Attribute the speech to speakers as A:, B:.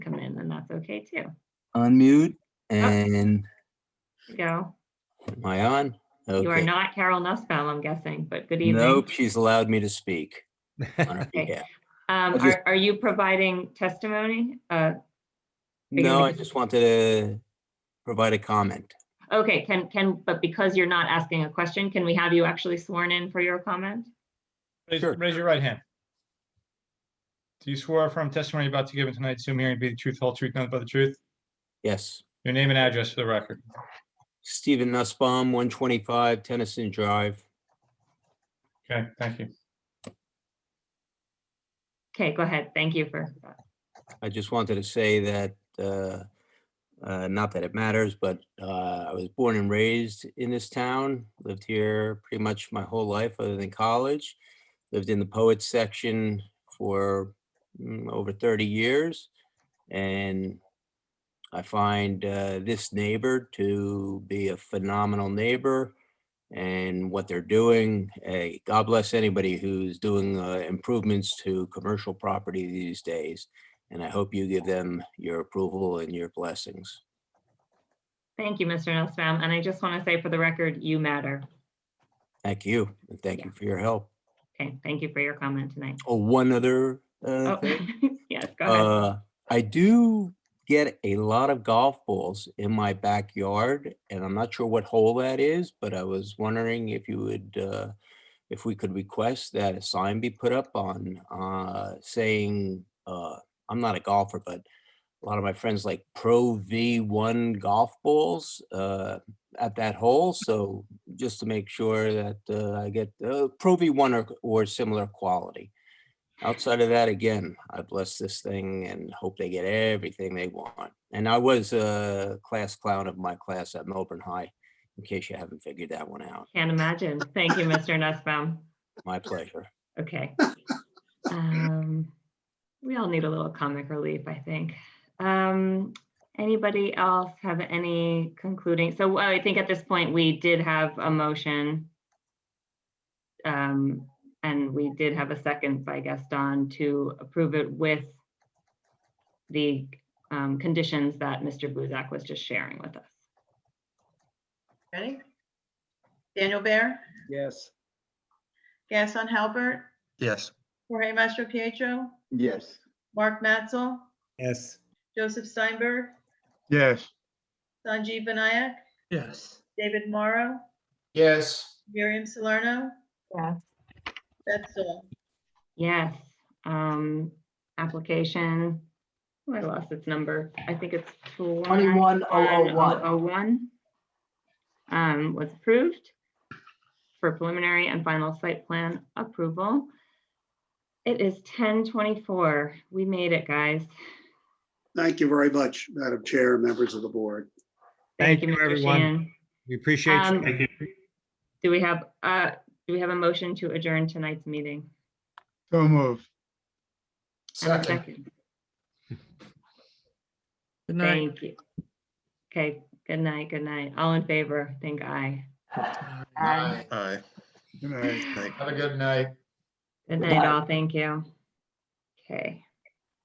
A: That's okay too.
B: unmute
A: Ah.
B: and
A: There you Go.
B: am I on?
A: You are
B: Okay.
A: not Carol Nussbaum, I'm guessing, but good evening.
B: Nope, she's allowed me to speak. on her
A: Okay.
B: behalf.
A: Um,
B: I just-
A: are, are you providing testimony? Uh, you
B: No,
A: gonna
B: I
A: be-
B: just wanted to provide a comment.
A: okay, can, can, but because you're not asking a question, can we have you actually sworn in for your comment?
C: Raise,
B: Sure.
C: raise your right hand. Do you swear affirm testimony you're about to give in tonight's Zoom hearing to be the truth, whole truth, nothing but the truth?
B: Yes,
C: Your name and address for the record.
B: Stephen Nussbaum, 125 Tennyson Drive.
C: Okay, thank you.
A: Okay, go ahead. Thank you for, that.
B: I just wanted to say that, uh, uh, not that it matters, but uh, I was born and raised in this town, lived here pretty much my whole life other than college. Lived in the poets section for mm, over 30 years. And I find uh, this neighbor to be a phenomenal neighbor and what they're doing. eh, God bless anybody who's doing uh, improvements to commercial property these days and I hope you give them your approval and your blessings.
A: thank you, Mr. Nussbaum. And I just want to say for the record, you matter.
B: Thank you, and thank you for your help.
A: Okay, thank you for your comment tonight.
B: Oh, one other
A: Oh,
B: uh, thing.
A: yes, go ahead.
B: Uh, I do get a lot of golf balls in my backyard, and I'm not sure what hole that is, but I was wondering if you would, uh, if we could request that a sign be put up on uh, saying, uh, I'm not a golfer, but a lot of my friends like Pro V1 golf balls uh, at that hole. So just to make sure that uh, I get uh, Pro V1 or, or similar quality. Outside of that, again, I bless this thing and hope they get everything they want. And I was a class clown of my class at Melbourne High, in case you haven't figured that one out.
A: Can't imagine. Thank you, Mr. Nussbaum.
B: My pleasure.
A: Okay. Um, We all need a little comic relief, I think. Um, Anybody else have any concluding? So I think at this point, we did have a motion. um, And we did have a second by Gaston to approve it with the um, conditions that Mr. Buzak was just sharing with us.
D: Ready? Daniel Bear,
E: Yes.
D: Gaston Halbert,
F: Yes.
D: Jorge Mastro Pietro,
E: Yes.
D: Mark Matzel,
E: Yes.
D: Joseph Steinberg,
F: Yes.
D: Sanjeev Benayak,
F: Yes.
D: David Morrow,
F: Yes.
D: Miriam Salerno.
A: Yes.
D: That's all.
A: Yes, um, application, oh, I lost its number. I think it's twenty-one oh oh one. Oh, one. Um, was approved for preliminary and final site plan approval. It is ten twenty-four. We made it, guys.
G: Thank you very much, Madam Chair, members of the board.
C: Thank you,
A: Mr.
C: everyone.
A: Sheehan.
C: We appreciate
A: Um, Thank Do we have, uh, do we have a motion to adjourn tonight's meeting?
F: So move.
A: And a Second.
F: Good
A: Thank you. Okay, good night, good night. All in favor, think aye.
F: Aye.
C: Good night.
F: Have a good night.
A: Good night, all. Thank you. Okay.